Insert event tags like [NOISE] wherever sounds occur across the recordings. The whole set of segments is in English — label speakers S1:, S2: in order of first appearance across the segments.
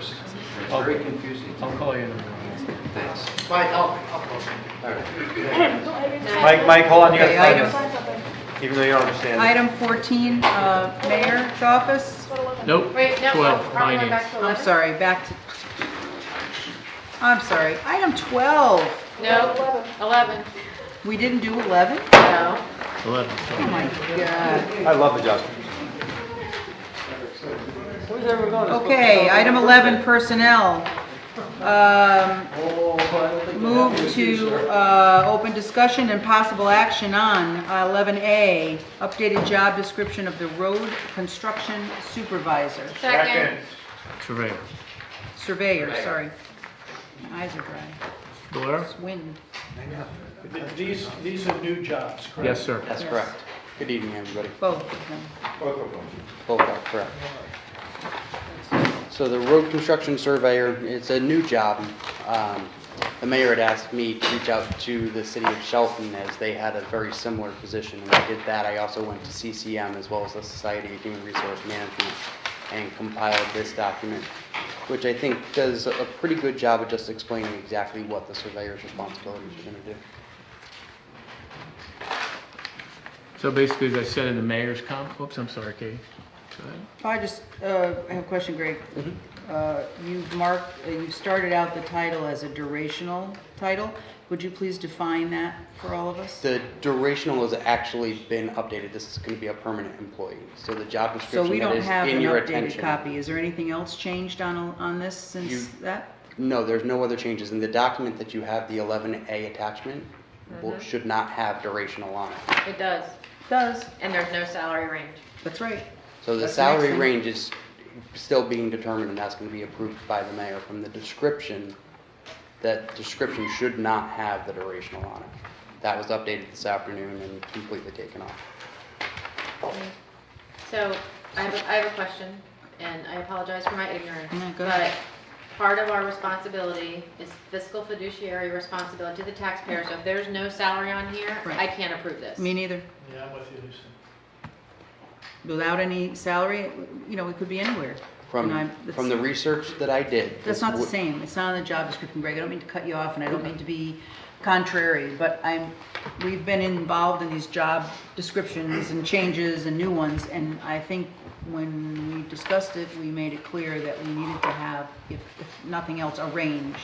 S1: It's very confusing.
S2: I'll call you.
S1: Thanks.
S3: Mike, I'll, I'll post it.
S1: All right.
S2: Mike, Mike, hold on, you
S4: Okay,
S2: gotta
S4: item-
S2: sign this, even though you don't understand.
S4: Item 14, uh, Mayor's Office.
S2: Nope,
S5: Wait, no,
S2: twelve,
S5: are we going
S2: finance.
S5: back to 11?
S4: I'm sorry, back to, I'm sorry, item 12.
S5: No, 11,
S4: We didn't do 11?
S5: no.
S2: Eleven.
S4: Oh my God.
S2: I love the job.
S4: Okay, item 11, Personnel. Um, Move to uh, open discussion and possible action on 11A, updated job description of the road construction supervisor.
S5: Second.
S2: Surveyor.
S4: Surveyor, sorry. My eyes are dry.
S2: Valero?
S4: It's wind.
S3: These, these are new jobs, correct?
S2: Yes, sir.
S1: That's
S4: Yes.
S1: correct. Good evening, everybody.
S4: Both of them.
S1: Both are correct. So the road construction surveyor, it's a new job. Um, The mayor had asked me to reach out to the city of Shelton as they had a very similar position. And I did that. I also went to CCM as well as the Society of Human Resource Management and compiled this document, which I think does a pretty good job of just explaining exactly what the surveyor's responsibilities are going to do.
S2: So basically, as I said in the mayor's comp, oops, I'm sorry, Katie. Go ahead.
S4: I just, uh, I have a question, Greg.
S1: Mm-hmm.
S4: Uh, You've marked, uh, you've started out the title as a durational title. Would you please define that for all of us?
S1: The durational has actually been updated. This is going to be a permanent employee. So the job
S4: So we
S1: description that
S4: don't
S1: is
S4: have an
S1: in your
S4: updated
S1: attention.
S4: copy. Is there anything else changed on, on this since
S1: You-
S4: that?
S1: No, there's no other changes. In the document that you have, the 11A attachment
S4: Mm-hmm.
S1: will- should not have durational on it.
S5: It does,
S4: Does,
S5: and there's no salary range.
S4: that's right.
S1: So the
S4: That's the next
S1: salary
S4: thing.
S1: range is still being determined and that's going to be approved by the mayor from the description. That description should not have the durational on it. That was updated this afternoon and completely taken off.
S5: So I have, a- I have a question, and I apologize for my ignorance.
S4: No, go
S5: But
S4: ahead.
S5: part of our responsibility is fiscal fiduciary responsibility to the taxpayer. So if there's no salary on here,
S4: Right.
S5: I can't approve this.
S4: Me neither.
S3: Yeah, I'm with you, Lisa.
S4: Without any salary, you know, it could be anywhere.
S1: From,
S4: And I'm-
S1: from the research that I did.
S4: That's not the
S1: w-
S4: same, it's not on the job description, Greg, I don't mean to cut you off, and I don't mean to be contrary, but I'm, we've been involved in these job descriptions and changes and new ones, and I think when we discussed it, we made it clear that we needed to have, if, if nothing else, a range.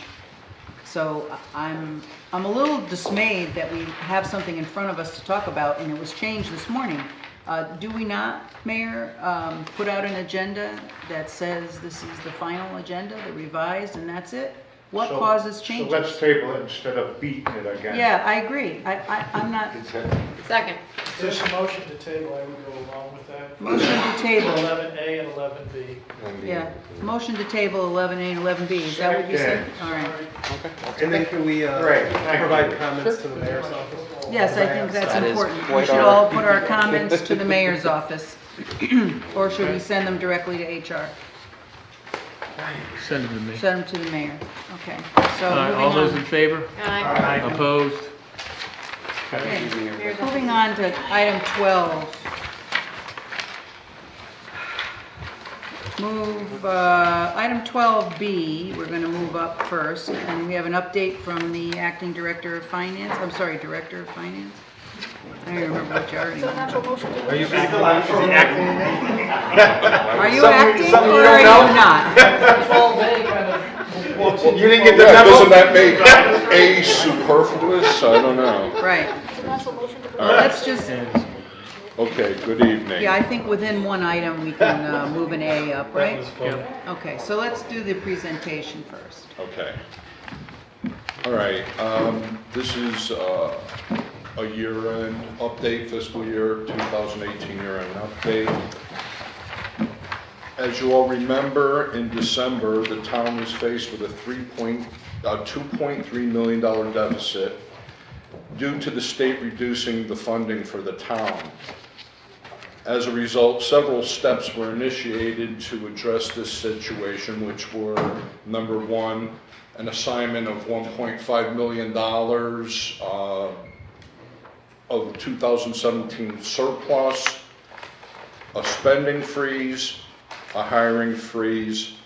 S4: So I- I'm, I'm a little dismayed that we have something in front of us to talk about, and it was changed this morning. Uh, Do we not, Mayor, um, put out an agenda that says this is the final agenda, the revised, and that's it? What
S6: So-
S4: causes
S6: So
S4: changes?
S6: let's table it instead of beating it again.
S4: Yeah, I agree. I, I, I'm not,
S6: It's a-
S5: Second,
S3: If there's a motion to table, I would go along with that.
S4: motion to table,
S3: Eleven A and eleven B.
S4: yeah, motion to table 11A and 11B, is that what you said? All right.
S7: And then can we uh,
S6: Right, thank
S7: provide
S6: you.
S7: comments to the mayor's office?
S4: Yes, I think that's
S1: That is
S4: important. We
S1: quite
S4: should
S1: our-
S4: all put our comments to the mayor's office, [CLEARS THROAT] or should we send them directly to HR?
S2: Send it to me.
S4: Send them to the mayor, okay. So
S2: All right,
S4: moving
S2: all those in
S4: on,
S2: favor?
S5: aye.
S2: Opposed?
S4: okay.
S5: Mayor's office.
S4: Moving on to item 12. Move, uh, item 12B, we're going to move up first, and we have an update from the acting director of finance, I'm sorry, director of finance? I don't even remember what you are anymore.
S7: Are you acting?
S4: Are you acting or are you not?
S7: You didn't get the
S8: Yeah, doesn't
S7: memo?
S8: that make A superfluous? I don't know.
S4: Right.
S8: All right.
S4: Let's just,
S8: Okay, good evening.
S4: yeah, I think within one item, we can uh, move an A up, right?
S2: Yep.
S4: Okay, so let's do the presentation first.
S8: Okay. All right, um, this is, uh, a year-end update, fiscal year 2018 year-end update. As you all remember, in December, the town was faced with a three point, uh, $2.3 million deficit due to the state reducing the funding for the town. As a result, several steps were initiated to address this situation, which were, number one, an assignment of $1.5 million uh, of 2017 surplus, a spending freeze, a hiring freeze,